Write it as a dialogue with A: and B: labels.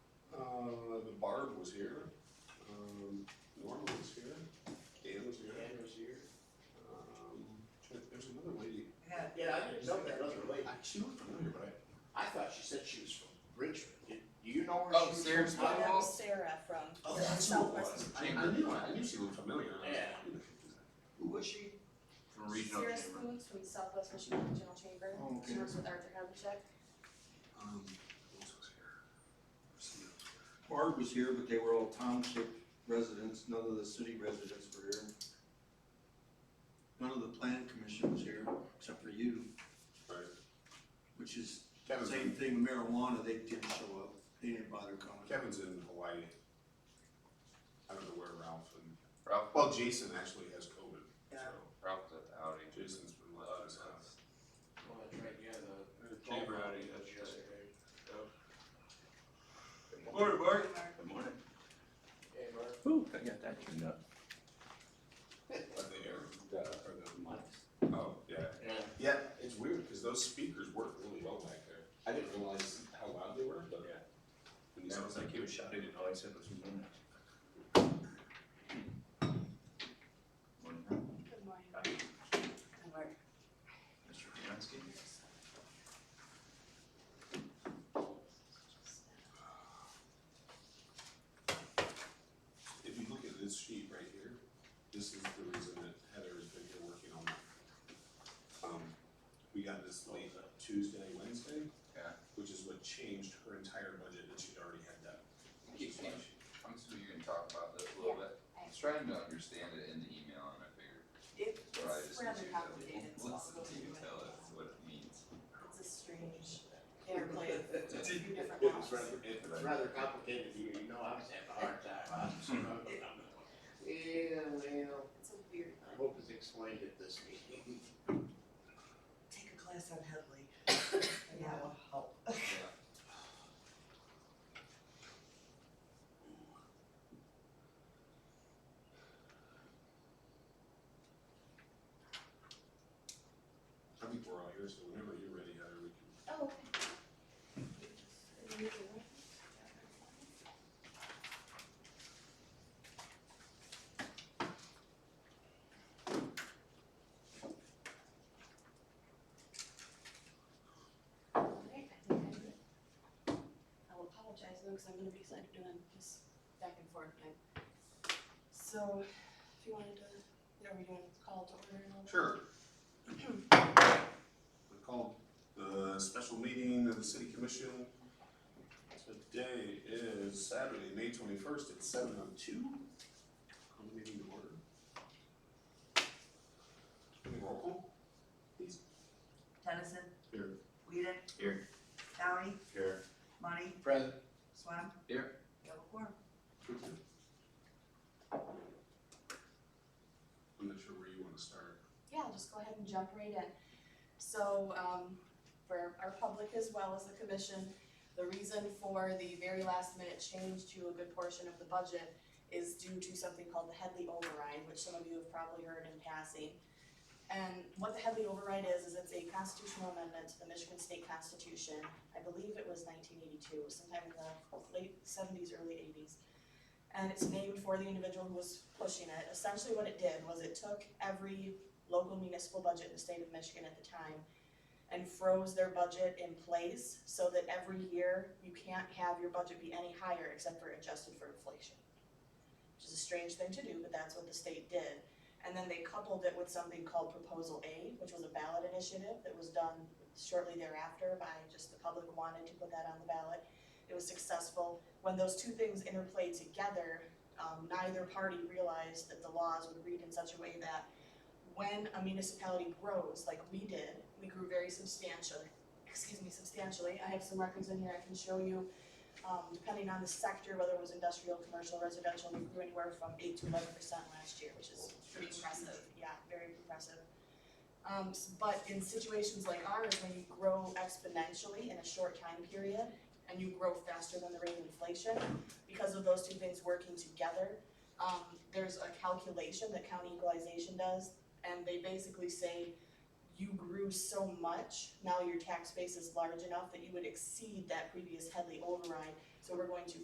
A: Uh, was here, um, Norma was here, Dan was here.
B: Dan was here.
A: Um, there's another lady,
B: Yeah, Yeah, I didn't know that other lady.
A: I, she looked familiar, but I,
B: I thought she said she was from Richmond. Do do you know where
C: Oh,
B: she was from?
C: Sarah's
D: Well,
C: mom?
D: that was Sarah from
A: oh, that's who it
D: Southwest.
A: was. I, I knew, I knew she looked familiar, and I was like,
B: Yeah.
A: who the heck is that?
B: Who was she?
C: From regional
D: Sarah
C: chamber.
D: Spooks from Southwest Michigan Regional Chamber.
C: Oh, okay.
D: She works with Arthur Havlicek.
A: Um, who else was here? Christina was here.
E: Barb was here, but they were all township residents, none of the city residents were here. None of the plan commission was here, except for you,
A: Right,
E: which is the
A: Kevin's,
E: same thing with marijuana, they didn't show up, they didn't bother coming.
A: Kevin's in Hawaii. I don't know where Ralph and,
C: Ralph,
A: well, Jason actually has COVID, so
C: Ralph was at the outing.
A: Jason's been left his house.
B: Well, that's right, yeah, the.
C: Chamber outing, that's right.
B: yesterday.
C: Morning, Bart. Good morning.
B: Hey, Mark.
F: Ooh, I got that turned up.
A: But they are,
F: Yeah.
A: or the, oh, yeah.
B: Yeah.
A: Yeah, it's weird because those speakers work really well back there. I didn't realize how loud they were, but.
F: Yeah.
A: When you
F: It
A: said
F: sounds like he was shouting and all I said was, "Mm."
C: "Mm-hmm." Morning.
D: Good morning.
C: Hi.
D: Good morning.
C: Mr. Fiancee.
A: If you look at this sheet right here, this is the reason that Heather has been here working on it. Um, we got this late Tuesday, Wednesday.
C: Yeah.
A: Which is what changed her entire budget and she'd already had that.
C: Keep- keep- I'm assuming you're gonna talk about this a little bit. I was trying to understand it in the email and I figured,
D: It-
C: so I
D: It's
C: just need
D: rather
C: you to
D: complicated. It's
C: listen
D: possible
C: to
D: to
C: you
D: do
C: tell us what it means.
D: It's a strange interplay of a few
A: It
D: different
A: was
D: laws.
A: rather, it,
B: It's rather complicated here, you know, I was having a hard time. I was- Yeah, well,
D: It's a weird,
B: I hope it's explained at this meeting.
G: take a class on Headley, and that will help.
A: I think we're all here, so whenever you're ready, Heather, we can.
D: oh, okay. Alright, I think I did it. I will apologize though, because I'm gonna be like doing this back and forth time. So, if you wanted to, are we doing call to order and all that?
A: Sure. We called the special meeting of the city commission. Today is Saturday, May twenty-first at seven oh two. Call the meeting to order. Can we roll call? Please.
G: Tennyson,
A: Here.
G: Whedon.
C: Here.
G: Downey,
C: Here.
G: Money,
B: Present.
G: Swam.
C: Here.
G: Double quorum.
A: I'm not sure where you wanna start.
D: Yeah, I'll just go ahead and jump right in. So, um, for our public as well as the commission, the reason for the very last minute change to a good portion of the budget is due to something called the Headley override, which some of you have probably heard in passing. And what the Headley override is, is it's a constitutional amendment to the Michigan State Constitution. I believe it was nineteen eighty-two, sometime in the late seventies, early eighties and it's named for the individual who was pushing it. Essentially, what it did was it took every local municipal budget in the state of Michigan at the time and froze their budget in place so that every year you can't have your budget be any higher except for adjusted for inflation. Which is a strange thing to do, but that's what the state did. And then they coupled it with something called Proposal A, which was a ballot initiative that was done shortly thereafter by just the public wanted to put that on the ballot. It was successful when those two things interplayed together, um, neither party realized that the laws would read in such a way that when a municipality grows, like we did, we grew very substantially, excuse me, substantially, I have some records in here I can show you. Um, depending on the sector, whether it was industrial, commercial, residential, we grew anywhere from eight to eleven percent last year, which is pretty impressive, yeah, very impressive. Um, s- but in situations like ours, when you grow exponentially in a short time period, and you grow faster than the rate of inflation, because of those two things working together, um, there's a calculation that county equalization does, and they basically say you grew so much, now your tax base is large enough that you would exceed that previous Headley override, so we're going to